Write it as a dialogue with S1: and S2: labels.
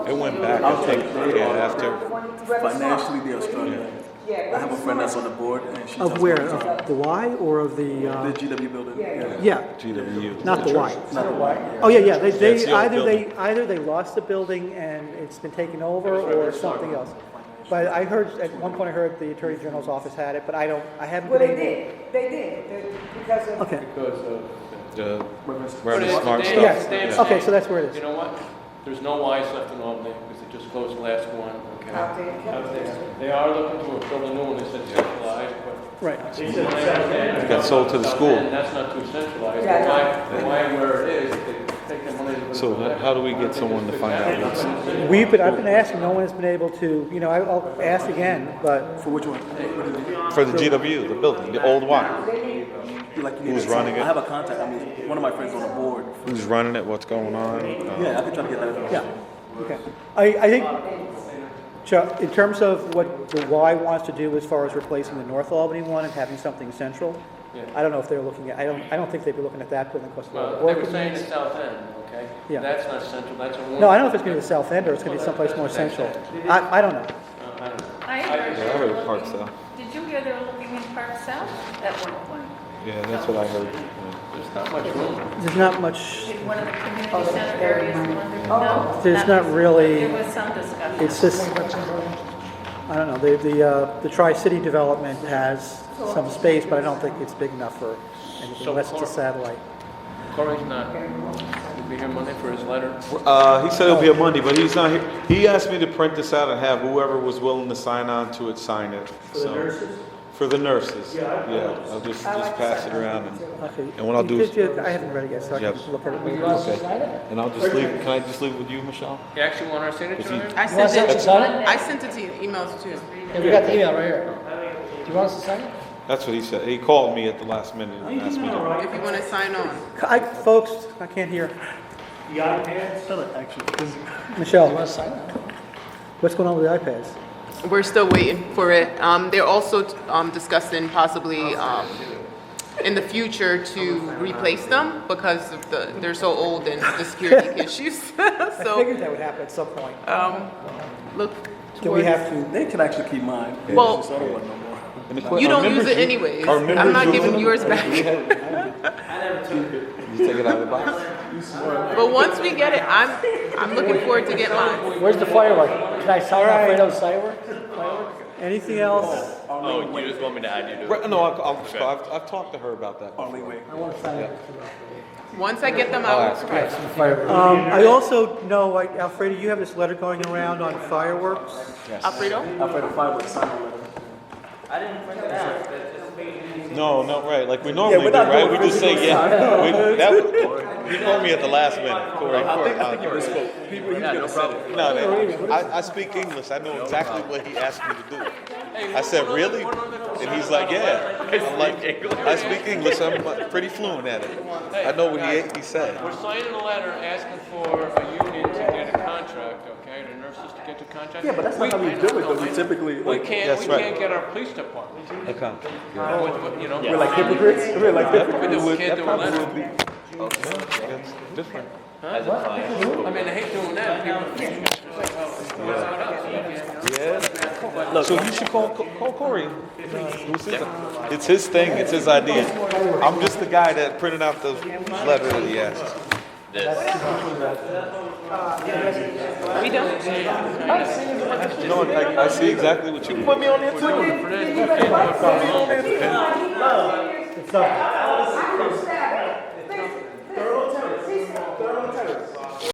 S1: It went back.
S2: I'll take
S1: it. Yeah, after.
S2: Financially, they are struggling. I have a friend that's on the board, and she tells
S3: Of
S2: me
S3: where,
S2: all the time.
S3: of the Y or of the,
S2: The
S3: uh,
S2: GW building. Yeah.
S3: yeah,
S1: GWU.
S3: not the Y?
S2: Not the white.
S3: Oh, yeah, yeah, they,
S1: That's
S3: they,
S1: the old
S3: either they, either they lost the building and it's been taken over or something else. But I heard, at one point I heard the Attorney General's office had it, but I don't, I haven't
S4: Well,
S3: been
S4: they
S3: able.
S4: did, they did, They- because of.
S3: Okay,
S5: uh,
S1: The, where
S5: But
S1: the
S5: it's-
S1: smart
S5: they-
S1: stuff.
S3: Yes.
S5: they
S3: Okay,
S5: abstained.
S3: so that's where it is.
S5: You know what? There's no Ys left in Albany because they just closed the last one. Okay.
S3: Ah.
S4: Out there, yeah.
S5: Out there. They are looking to build a new one. They said centralized, but.
S3: right.
S5: It
S1: got sold to the school.
S5: That's not too centralized.
S4: Yeah,
S5: Why, why where it is, they take the money. to put it
S1: So
S5: back.
S1: how do we get someone to find out what's-
S3: We've been, I've been asking, no one has been able to, you know, I- I'll ask again, but,
S2: For which one? What is it?
S1: For the GW, the building, the old Y.
S2: You like you need
S1: Who's
S2: a team.
S1: running it?
S2: I have a contact. I mean, one of my friends on the board.
S1: Who's running it? What's going on? Uh,
S2: Yeah, I could try to get that.
S3: yeah, okay. I, I think, Chuck, in terms of what the Y wants to do as far as replacing the North Albany one and having something central, I don't know if they're looking at, I don't, I don't think they'd be looking at that building, because
S5: Well,
S3: of
S5: they
S3: work.
S5: were
S3: it
S5: saying the
S3: needs.
S5: south end, okay?
S3: Yeah.
S5: That's not central, that's a.
S3: No, I don't know if it's gonna be the south end, or it's gonna be someplace more central. I, I don't know.
S5: Uh,
S6: I heard
S1: Yeah, I
S6: they
S1: heard
S6: were
S1: Park
S6: looking-
S1: South.
S6: Did you hear they were looking in Park South at one point?
S1: Yeah, that's what I heard.
S5: There's not much room.
S3: There's not much,
S6: Did one of the community center areas in London? No?
S3: Oh, There's not really-
S6: There was some discussion.
S3: it's just, I don't know, the, the, uh, the Tri-City development has some space, but I don't think it's big enough for anything, unless it's a satellite.
S5: Corey's not, he'll be here Monday for his letter.
S1: Uh, he said it'll be a Monday, but he's not here. He asked me to print this out and have whoever was willing to sign on to it, sign it. For the nurses? For the nurses. Yeah, I'll just, just pass it around and,
S3: Okay.
S1: And what I'll do is-
S3: Did you- I haven't read it yet, so I can
S1: Yes.
S3: look at it. later.
S1: okay. And I'll just leave, can I just leave it with you, Michelle?
S5: You actually want our signature on it?
S7: I sent it to, I sent it to you, emails too.
S8: Yeah, we got the email right here. Do you want us to sign it?
S1: That's what he said. He called me at the last minute and asked me to.
S7: If you want to sign on.
S3: I, folks, I can't hear.
S8: You
S3: Michelle,
S8: want to sign it?
S3: what's going on with the iPads?
S7: We're still waiting for it. Um, they're also, um, discussing possibly, um, in the future to replace them because of the, they're so old and the security issues.
S3: I
S7: So,
S3: figured that would happen at some point.
S7: um, look towards.
S3: Do we have to,
S2: They can actually keep mine. It's
S7: Well-
S2: just I don't want no more.
S1: And the que-
S7: You
S1: our
S7: don't use
S1: members
S7: it
S1: u-
S7: anyways.
S1: our
S7: I'm
S1: members
S7: not
S1: use
S7: giving
S1: it.
S7: yours back.
S1: We have- You take it out of the box?
S7: But once we get it, I'm, I'm looking forward to get mine.
S8: Where's the firework? Can I sign Alfredo's firework?
S3: anything else?
S9: Oh, you just want me to add you to it?
S1: Right, No, I'll, I'll, I've, I've talked to her about that.
S2: Only way.
S8: I want to sign it.
S7: Once I get them, I will try.
S3: Um, I also know, like, Alfredo, you have this letter going around on fireworks.
S7: Alfredo?
S2: Alfredo Fiber signed a letter.
S1: No, no, right, like we normally do,
S2: we're not
S1: right? We
S2: doing
S1: just say,
S2: physical
S1: yeah. We- that w- He called me at the last minute, Corey, Corey. uh, No, no, I, I speak English, I know exactly what he asked me to do. I said, really? And he's like, yeah. I'm like, I speak English, I'm like, pretty fluent at it. I know what he, he said.
S5: We're signing a letter asking for a union to get a contract, okay, the nurses to get the contract.
S2: Yeah, but that's not how we do it, though. We typically,
S5: We
S2: like,
S5: can't,
S1: That's
S5: we
S1: right.
S5: can't get our police department, with-
S1: Okay.
S5: with, you know.
S2: we're like hypocrites. We're like hypocrites.
S5: With this kid doing
S1: probably
S5: letter.
S1: would be, that's different.
S9: As a client.
S5: I mean, I hate doing that. People-
S1: So you should call, call Corey. Who's his- It's his thing, it's his idea. I'm just the guy that printed out the letter that he asked.
S7: We don't.
S1: No, I, I see exactly what you. Put me on there too.
S4: It's not.